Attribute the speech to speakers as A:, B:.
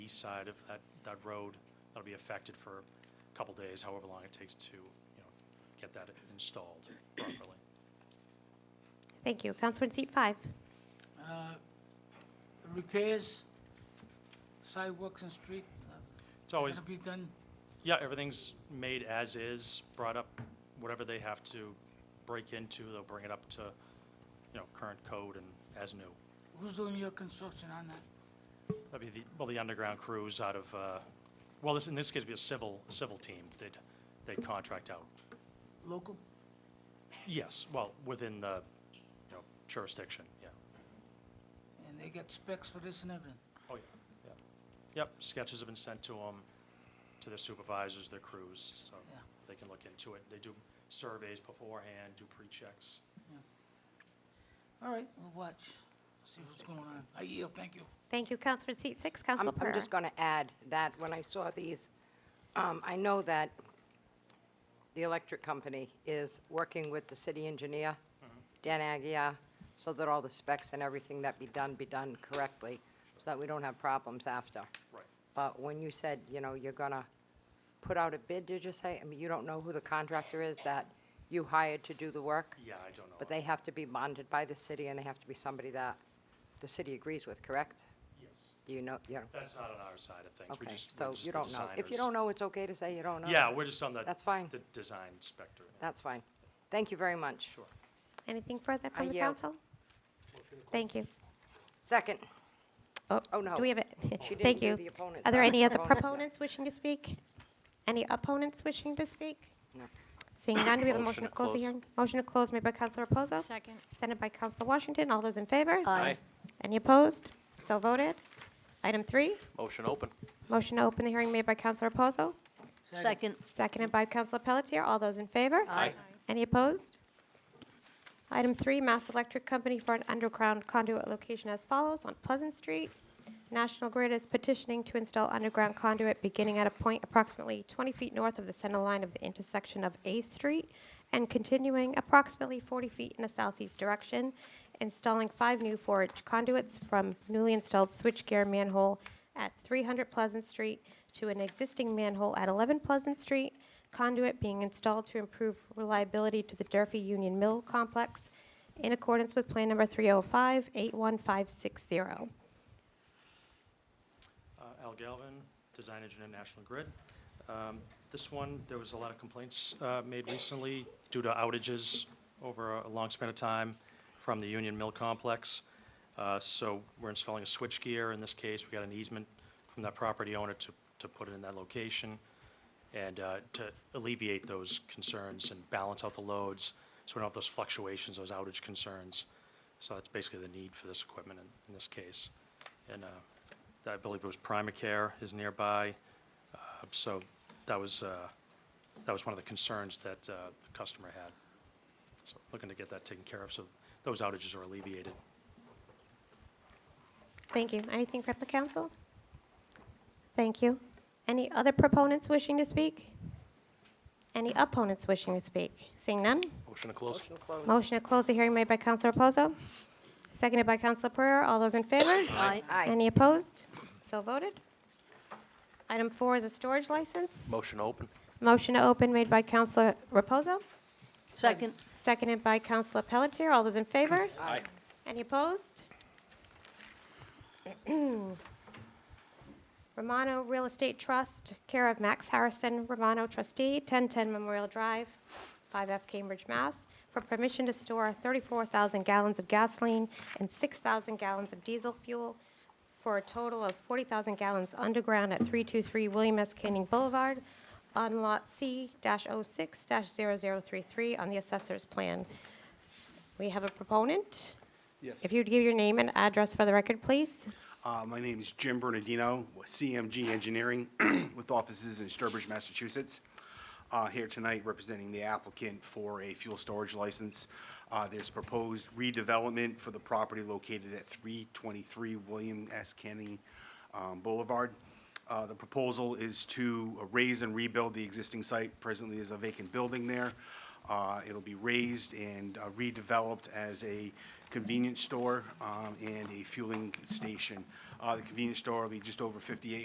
A: east side of that, that road. That'll be affected for a couple days, however long it takes to, you know, get that installed properly.
B: Thank you. Counselor in seat five.
C: Uh, Repairs, sidewalks and street,
A: It's always,
C: gonna be done,
A: yeah, everything's made as is, brought up, whatever they have to break into, they'll bring it up to, you know, current code and as new.
C: who's doing your construction on that?
A: That'd be the, well, the underground crews out of, uh, well, this, in this case, it'd be a civil, civil team they'd, they'd contract out.
C: Local?
A: Yes, well, within the, you know, jurisdiction, yeah.
C: And they got specs for this and everything?
A: Oh, yeah, yeah. Yep, sketches have been sent to them, to their supervisors, their crews, so
C: Yeah.
A: they can look into it. They do surveys beforehand, do pre-checks.
C: All right, we'll watch, see what's going on. I yield, thank you.
B: Thank you. Counselor in seat six,
D: I'm-
B: Counselor
D: I'm
B: Pereira.
D: just going to add that when I saw these, um, I know that the electric company is working with the city engineer, Dan Agia, so that all the specs and everything that be done be done correctly, so that we don't have problems after.
A: Right.
D: But when you said, you know, you're going to put out a bid, did you say? I mean, you don't know who the contractor is that you hired to do the work?
A: Yeah, I don't know.
D: But they have to be bonded by the city, and they have to be somebody that the city agrees with, correct?
A: Yes,
D: Do you know, you know?
A: that's not on our side of things. We
D: Okay,
A: just- we're
D: so
A: just
D: you
A: the
D: don't know. If you
A: designers.
D: don't know, it's okay to say you don't know.
A: Yeah, we're just on the.
D: That's fine.
A: The design spectrum. yeah.
D: That's fine. Thank you very much.
A: Sure.
B: Anything further
D: I
B: from the
D: yield.
B: council? Thank you.
D: Second, Oh, no.
B: Do we have it?
D: She didn't
B: Thank
D: do
B: you.
D: the opponent.
B: Are there
D: Uh,
B: any other
D: opponents, yeah.
B: proponents wishing to speak? Any opponents wishing to speak?
D: No.
B: Seeing none, do we have a
A: Motion
B: motion
A: to
B: to close the
A: close.
B: hearing? Motion to close made by Counselor Reposo.
E: Second.
B: Seconded by Counselor Washington. All those in favor?
A: Aye.
B: Any opposed? So voted. Item three,
F: Motion open.
B: motion to open the hearing made by Counselor Reposo.
E: Second.
B: Seconded by Counselor Pelletier. All those in favor? Aye. Any opposed? Item three, Mass Electric Company for an underground conduit location as follows on Pleasant Street. National Grid is petitioning to install underground conduit beginning at a point approximately 20 feet north of the center line of the intersection of Eighth Street and continuing approximately 40 feet in a southeast direction, installing five new four-inch conduits from newly installed switchgear manhole at 300 Pleasant Street to an existing manhole at 11 Pleasant Street, conduit being installed to improve reliability to the Durfee Union Mill Complex in accordance with Plan Number 305-81560.
A: Uh, Al Galvin, Design Engineer, National Grid. Um, This one, there was a lot of complaints uh, made recently due to outages over a long span of time from the Union Mill Complex. Uh, So we're installing a switchgear. In this case, we got an easement from that property owner to, to put it in that location and uh, to alleviate those concerns and balance out the loads, so we don't have those fluctuations, those outage concerns. So that's basically the need for this equipment in, in this case. And uh, I believe it was Primacare is nearby, uh, so that was, uh, that was one of the concerns that uh, the customer had. So looking to get that taken care of, so those outages are alleviated.
B: Thank you. Anything from the council? Thank you. Any other proponents wishing to speak? Any opponents wishing to speak? Seeing none?
F: Motion to close.
D: Motion closed.
B: Motion to close the hearing made by Counselor Reposo, seconded by Counselor Pereira. All those in favor?
D: Aye. Aye.
B: Any opposed? So voted. Item four is a storage license.
F: Motion open.
B: Motion to open made by Counselor Reposo,
E: Second.
B: seconded by Counselor Pelletier. All those in favor?
F: Aye.
B: Any opposed? Romano Real Estate Trust, care of Max Harrison, Romano trustee, 1010 Memorial Drive, 5F Cambridge, Mass., for permission to store 34,000 gallons of gasoline and 6,000 gallons of diesel fuel for a total of 40,000 gallons underground at 323 William S. Canning Boulevard on Lot C-06-0033 on the assessor's plan. We have a proponent.
G: Yes.
B: If you'd give your name and address for the record, please.
G: Uh, My name is Jim Bernardino with CMG Engineering with offices in Sturbridge, Massachusetts. Uh, Here tonight representing the applicant for a fuel storage license. Uh, There's proposed redevelopment for the property located at 323 William S. Canning um, Boulevard. Uh, The proposal is to raise and rebuild the existing site. Presently is a vacant building there. Uh, It'll be raised and uh, redeveloped as a convenience store um, and a fueling station. Uh, The convenience store will be just over 58